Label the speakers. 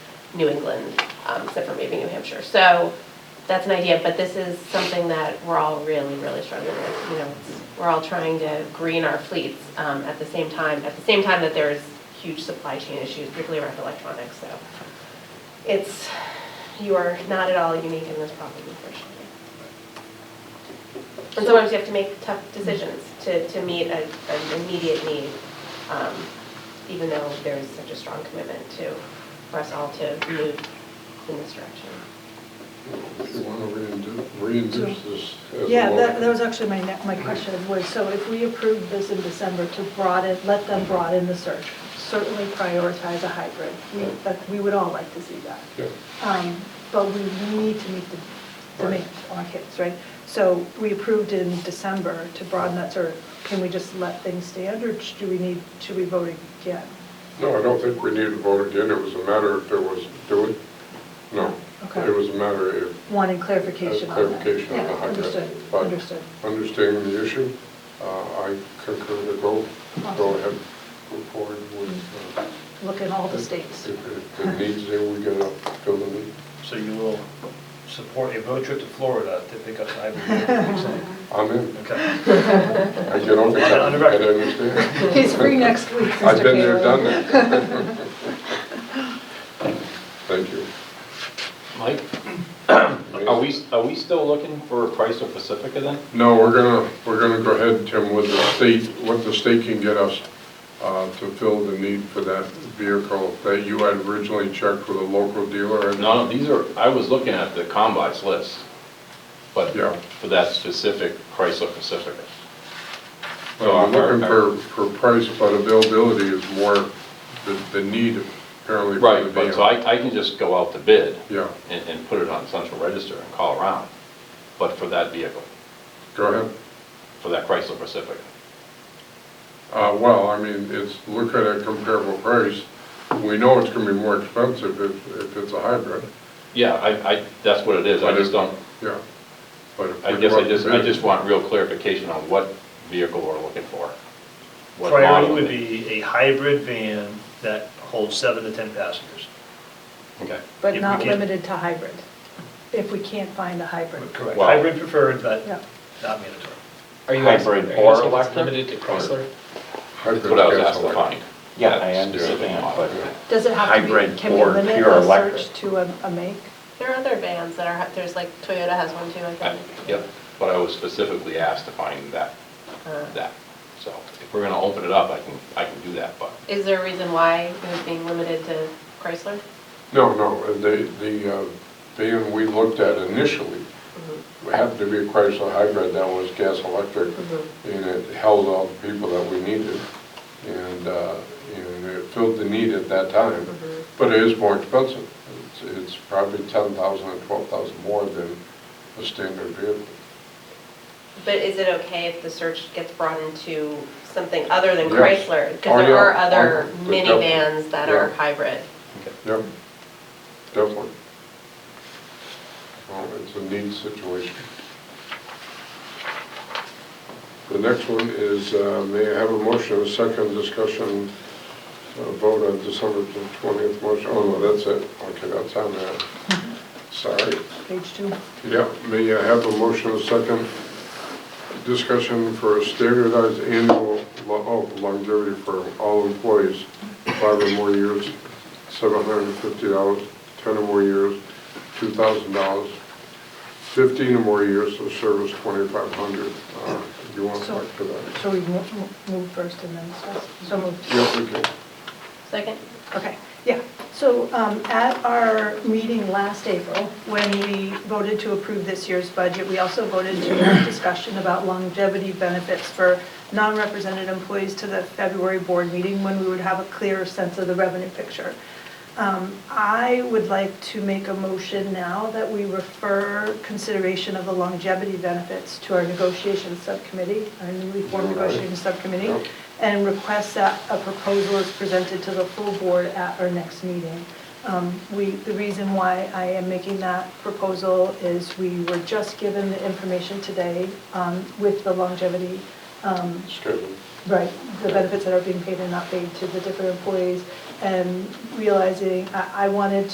Speaker 1: New England, um, except for maybe New Hampshire. So that's an idea, but this is something that we're all really, really struggling with. You know, it's- we're all trying to green our fleets um, at the same time, at the same time that there's huge supply chain issues, particularly around electronics, so. It's, you are not at all unique in this problem, unfortunately. And sometimes you have to make tough decisions to, to meet a- an immediate need, um, even though there is such a strong commitment to, for us all to move in this direction.
Speaker 2: You want to reintroduce, reintroduce this as a
Speaker 3: Yeah, that,
Speaker 2: law.
Speaker 3: that was actually my, ne- my question was, so if we approve this in December to broaden, let them broaden the search, certainly prioritize a hybrid. We, that, we would all like to see that.
Speaker 2: Yeah.
Speaker 3: Um, But we need to meet the demand on our kids, right? So we approved in December to broaden that search. Can we just let things stand or do we need, should we vote again?
Speaker 2: No, I don't think we need to vote again. It was a matter if there was, do it? No.
Speaker 3: Okay.
Speaker 2: It was a matter if,
Speaker 3: Wanting
Speaker 2: as
Speaker 3: clarification on that.
Speaker 2: clarification on the
Speaker 3: Yeah,
Speaker 2: hybrid.
Speaker 3: Understood,
Speaker 2: But
Speaker 3: understood.
Speaker 2: Understanding the issue, uh, I concur to go, go
Speaker 3: Awesome.
Speaker 2: ahead, move forward with. uh,
Speaker 3: Look in all the states.
Speaker 2: If if it needs there, we gotta fill the need.
Speaker 4: So you will support a road trip to Florida to pick up the hybrid?
Speaker 2: I'm in.
Speaker 4: Okay.
Speaker 2: I get on the, I
Speaker 4: On the record.
Speaker 2: understand.
Speaker 3: He's free next week, Mr.
Speaker 2: I've been there,
Speaker 3: Kalin.
Speaker 2: done that. Thank you.
Speaker 5: Mike, are we, are we still looking for a price of Pacifica then?
Speaker 2: No, we're gonna, we're gonna go ahead, Tim, with the state, what the state can get us uh, to fill the need for that vehicle that you had originally checked with a local dealer. and-
Speaker 5: No, no, these are, I was looking at the combines list, but
Speaker 2: Yeah.
Speaker 5: for that specific price of Pacifica.
Speaker 2: So I'm looking for, for price, but availability is more the, the need apparently for the
Speaker 5: Right, but so
Speaker 2: vehicle.
Speaker 5: I, I can just go out to bid
Speaker 2: Yeah,
Speaker 5: and, and put it on central register and call around, but for that vehicle,
Speaker 2: go ahead.
Speaker 5: for that Chrysler Pacifica.
Speaker 2: Uh, well, I mean, it's, look at a comparable price. We know it's gonna be more expensive if, if it's a hybrid.
Speaker 5: Yeah, I, I, that's what it is, I
Speaker 2: But
Speaker 5: just
Speaker 2: if-
Speaker 5: don't,
Speaker 2: Yeah. But if
Speaker 5: I
Speaker 2: we
Speaker 5: guess I
Speaker 2: want to
Speaker 5: just, I
Speaker 2: bid-
Speaker 5: just want real clarification on what vehicle we're looking for. what
Speaker 4: Priority
Speaker 5: model.
Speaker 4: would be a hybrid van that holds seven to 10 passengers.
Speaker 5: Okay.
Speaker 4: If
Speaker 3: But
Speaker 4: we
Speaker 3: not
Speaker 4: can-
Speaker 3: limited to hybrid, if we can't find a hybrid.
Speaker 4: Correct.
Speaker 5: Wow.
Speaker 4: Hybrid preferred, but
Speaker 3: Yeah.
Speaker 4: not mandatory.
Speaker 6: Are you asking, are
Speaker 5: Hybrid
Speaker 6: you
Speaker 5: or
Speaker 6: asking if it's
Speaker 5: electric?
Speaker 6: limited to Chrysler?
Speaker 2: hybrid
Speaker 5: That's what I was asked to
Speaker 2: gasoline.
Speaker 5: find.
Speaker 7: Yeah, I
Speaker 5: That's the other
Speaker 7: understand,
Speaker 5: model.
Speaker 7: but
Speaker 3: Does it have to be,
Speaker 7: Hybrid
Speaker 3: can we
Speaker 7: or
Speaker 3: limit
Speaker 7: pure
Speaker 3: the
Speaker 7: electric?
Speaker 3: search to a, a make?
Speaker 1: There are other vans that are, there's like Toyota has one too, I
Speaker 5: I-
Speaker 1: think.
Speaker 5: Yep, but I was specifically asked to find that,
Speaker 1: Uh,
Speaker 5: that. So if we're gonna open it up, I can, I can do that, but
Speaker 1: Is there a reason why it was being limited to Chrysler?
Speaker 2: No, no, the, the uh, van we looked at initially
Speaker 1: Mm-hmm.
Speaker 2: happened to be a Chrysler hybrid that was gas electric,
Speaker 1: Mhm.
Speaker 2: and it held all the people that we needed, and, uh, and it filled the need at that time,
Speaker 1: Mhm.
Speaker 2: but it is more expensive. It's, it's probably ten thousand or twelve thousand more than a standard vehicle.
Speaker 1: But is it okay if the search gets broadened to something other than
Speaker 2: Yes.
Speaker 1: Chrysler? Because
Speaker 2: Oh,
Speaker 1: there
Speaker 2: yeah.
Speaker 1: are other
Speaker 2: Oh, definitely.
Speaker 1: minivans that are
Speaker 2: Yeah.
Speaker 1: hybrid.
Speaker 2: Yep, definitely. Well, it's a neat situation. The next one is, uh, may I have a motion, a second discussion, uh, vote on December twentieth motion? Oh, no, that's it. Okay, that's on there. Sorry.
Speaker 3: Page two.
Speaker 2: Yeah, may I have a motion, a second discussion for a standardized annual lo- oh, longevity for all employees, five or more years, seven hundred and fifty dollars, ten or more years, two thousand dollars, fifteen or more years of service, twenty-five hundred. Uh, You want to talk to that?
Speaker 3: So we mo- mo- move first and then discuss? So moved.
Speaker 2: Yep, we can.
Speaker 1: Second?
Speaker 3: Okay, yeah. So um, at our meeting last April, when we voted to approve this year's budget, we also voted to have discussion about longevity benefits for non-represented employees to the February board meeting when we would have a clearer sense of the revenue picture. Um, I would like to make a motion now that we refer consideration of the longevity benefits to our negotiations subcommittee, our newly formed
Speaker 2: All right.
Speaker 3: negotiations subcommittee,
Speaker 2: Yep.
Speaker 3: and request that a proposal is presented to the full board at our next meeting. Um, We, the reason why I am making that proposal is we were just given the information today um, with the longevity um,
Speaker 2: Schedule.
Speaker 3: Right, the benefits that are being paid and not paid to the different employees, and realizing, I, I wanted